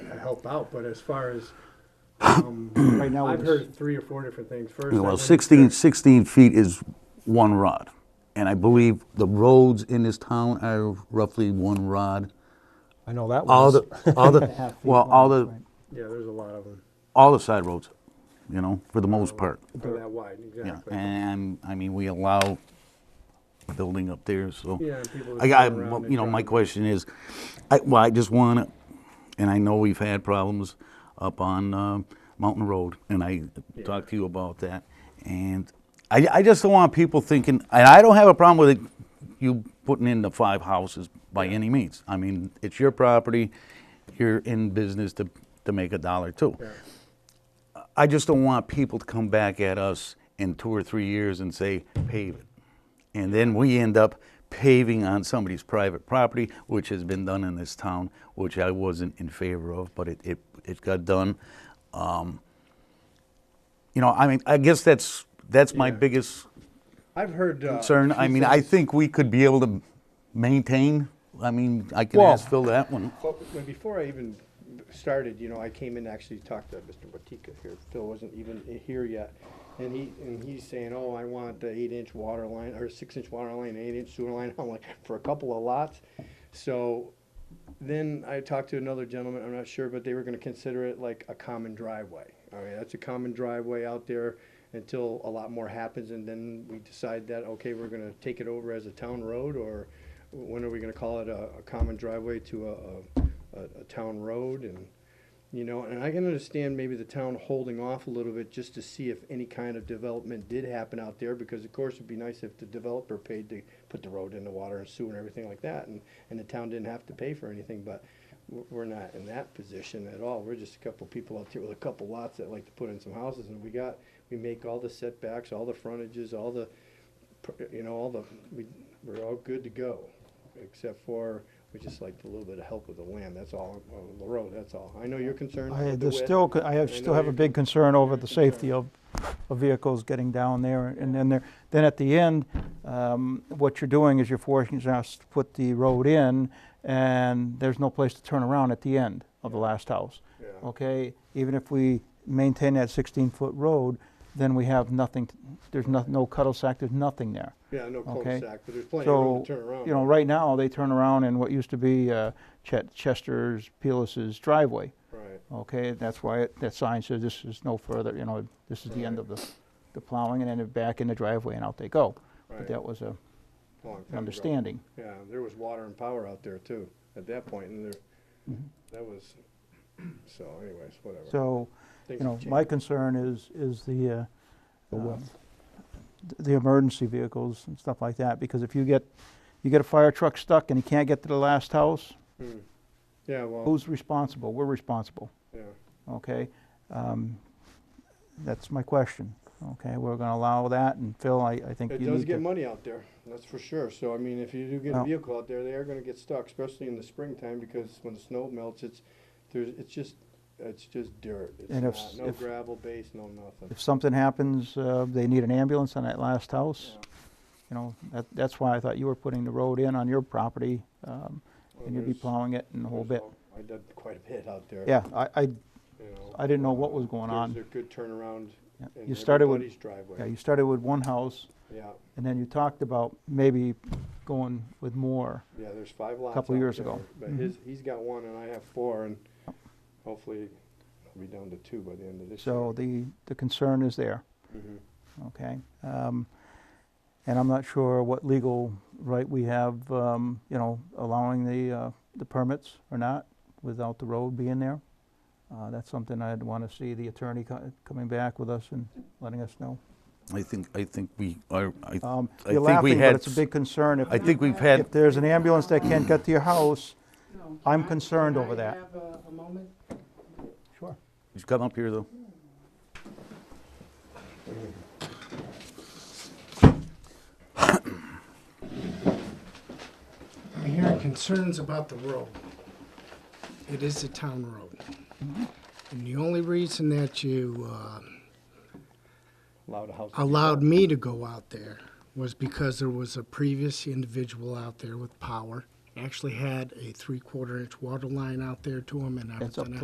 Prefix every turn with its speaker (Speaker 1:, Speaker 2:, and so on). Speaker 1: help out, but as far as, um,
Speaker 2: Right now,
Speaker 1: I've
Speaker 2: it's-
Speaker 1: heard three or four different things. First, I
Speaker 3: Well,
Speaker 1: went-
Speaker 3: 16, 16 feet is one rod. And I believe the roads in this town are roughly one rod.
Speaker 4: I know that
Speaker 3: All
Speaker 4: was.
Speaker 3: the, all
Speaker 2: and a half feet
Speaker 3: the, well, all
Speaker 2: wide,
Speaker 3: the,
Speaker 2: right.
Speaker 1: Yeah, there's a lot of them,
Speaker 3: all the side roads, you know, for the most part.
Speaker 1: They're that wide,
Speaker 3: Yeah,
Speaker 1: exactly.
Speaker 3: and, I mean, we allow building up there, so.
Speaker 1: Yeah, and people
Speaker 3: I,
Speaker 1: just
Speaker 3: I,
Speaker 1: go around
Speaker 3: well,
Speaker 1: and
Speaker 3: you know, my
Speaker 1: drive.
Speaker 3: question is, I, well, I just want to, and I know we've had problems up on uh, Mountain Road, and I talked to you about that, and I, I just don't want people thinking, and I don't have a problem with it, you putting in the five houses by any means. I mean, it's your property, you're in business to, to make a dollar too.
Speaker 1: Yeah.
Speaker 3: I just don't want people to come back at us in two or three years and say, pave it. And then we end up paving on somebody's private property, which has been done in this town, which I wasn't in favor of, but it, it, it got done. Um, You know, I mean, I guess that's, that's my
Speaker 1: Yeah.
Speaker 3: biggest
Speaker 1: I've heard. uh,
Speaker 3: concern. I
Speaker 1: two
Speaker 3: mean, I
Speaker 1: things.
Speaker 3: think we could be able to maintain, I mean, I can
Speaker 4: Well-
Speaker 3: ask Phil that one.
Speaker 1: Well, but before I even started, you know, I came in to actually talk to Mr. Batika here. Phil wasn't even i- here yet. And he, and he's saying, oh, I want the eight inch water line, or six inch water line, eight inch sewer line. I'm like, for a couple of lots. So then I talked to another gentleman, I'm not sure, but they were gonna consider it like a common driveway. All right, that's a common driveway out there until a lot more happens and then we decide that, okay, we're gonna take it over as a town road or when are we gonna call it a, a common driveway to a, a, a- a town road and, you know, and I can understand maybe the town holding off a little bit just to see if any kind of development did happen out there, because of course it'd be nice if the developer paid to put the road in the water and sewer and everything like that, and, and the town didn't have to pay for anything, but we're, we're not in that position at all. We're just a couple people out there with a couple lots that like to put in some houses, and we got, we make all the setbacks, all the frontages, all the, pr- you know, all the, we, we're all good to go, except for, we just like a little bit of help with the land, that's all, uh, the road, that's all. I know you're concerned
Speaker 2: I,
Speaker 1: with the
Speaker 2: there's
Speaker 1: width.
Speaker 2: still, co- I have,
Speaker 1: I
Speaker 2: still
Speaker 1: know
Speaker 2: have a
Speaker 1: you're
Speaker 2: big concern over the safety of, of vehicles getting down there, and then there, then at the end, um, what you're doing is you're forcing us to put the road in, and there's no place to turn around at the end of the last house.
Speaker 1: Yeah.
Speaker 2: Okay, even if we maintain that sixteen-foot road, then we have nothing, t- there's no, no cul-de-sac, there's nothing there.
Speaker 1: Yeah, no
Speaker 2: Okay.
Speaker 1: cul-de-sac, but there's plenty of room
Speaker 2: So,
Speaker 1: to turn around.
Speaker 2: you know, right now, they turn around in what used to be, uh, Chet, Chester's, Pelis's driveway.
Speaker 1: Right,
Speaker 2: Okay, that's why it- that sign says this is no further, you know, this is the end of the, the plowing, and then they're back in the driveway and out they go. But
Speaker 1: Right.
Speaker 2: that was a
Speaker 1: long time ago.
Speaker 2: an understanding.
Speaker 1: Yeah, there was water and power out there too, at that point, and there, that was, so anyways, whatever.
Speaker 2: Mm-hmm. So, you
Speaker 1: Things
Speaker 2: know,
Speaker 1: have
Speaker 2: my
Speaker 1: changed.
Speaker 2: concern is, is the, uh,
Speaker 4: The
Speaker 2: um,
Speaker 4: width.
Speaker 2: th- the emergency vehicles and stuff like that, because if you get, you get a fire truck stuck and he can't get to the last house,
Speaker 1: Hmm. Yeah, well,
Speaker 2: who's responsible? We're responsible.
Speaker 1: yeah,
Speaker 2: okay? Um, That's my question, okay? We're gonna allow that, and Phil, I, I think you
Speaker 1: it
Speaker 2: need to...
Speaker 1: does get money out there, that's for sure, so I mean, if you do get a
Speaker 2: Well-
Speaker 1: vehicle out there, they are gonna get stuck, especially in the springtime, because when the snow melts, it's, there's, it's just, it's just dirt, it's
Speaker 2: And if
Speaker 1: not,
Speaker 2: s-
Speaker 1: no
Speaker 2: if-
Speaker 1: gravel base, no nothing.
Speaker 2: If something happens, uh, they need an ambulance on that last house,
Speaker 1: Yeah.
Speaker 2: you know? That, that's why I thought you were putting the road in on your property, um,
Speaker 1: Well,
Speaker 2: and you'd be
Speaker 1: there's-
Speaker 2: plowing it and the whole
Speaker 1: there's
Speaker 2: bit.
Speaker 1: all- I did quite a bit out there.
Speaker 2: Yeah, I, I,
Speaker 1: you know,
Speaker 2: I didn't know what was going
Speaker 1: there's
Speaker 2: on.
Speaker 1: a good turnaround
Speaker 2: yeah.
Speaker 1: in
Speaker 2: You started with,
Speaker 1: everybody's
Speaker 2: yeah,
Speaker 1: driveway.
Speaker 2: you started with one house,
Speaker 1: Yeah,
Speaker 2: and then you talked about maybe going with more.
Speaker 1: yeah, there's five lots.
Speaker 2: Couple
Speaker 1: out
Speaker 2: years
Speaker 1: there,
Speaker 2: ago.
Speaker 1: But
Speaker 2: Mhm.
Speaker 1: his, he's got one and I have four and hopefully I'll be down to two by the end of this year.
Speaker 2: So the, the concern is there.
Speaker 1: Mhm.
Speaker 2: okay? Um, And I'm not sure what legal right we have, um, you know, allowing the, uh, the permits or not without the road being there. Uh, That's something I'd want to see the attorney co- coming back with us and letting us know.
Speaker 3: I think, I think we are, I,
Speaker 2: Um,
Speaker 3: I
Speaker 2: You're
Speaker 3: think we
Speaker 2: laughing, but
Speaker 3: had,
Speaker 2: it's a big concern.
Speaker 3: I
Speaker 2: If,
Speaker 3: think we've had,
Speaker 2: if there's an ambulance that can't get to your house,
Speaker 5: No,
Speaker 2: I'm
Speaker 5: I-
Speaker 2: concerned
Speaker 5: can
Speaker 2: over
Speaker 5: I
Speaker 2: that.
Speaker 5: have a- a moment?
Speaker 2: sure.
Speaker 3: Just come up here, though.
Speaker 5: I'm hearing concerns about the road. It is a town road. And the only reason that you uh,
Speaker 1: Loud house.
Speaker 5: allowed me to go out there was because there was a previous individual out there with power. Actually had a three-quarter inch water line out there to him and
Speaker 2: That's up
Speaker 5: everything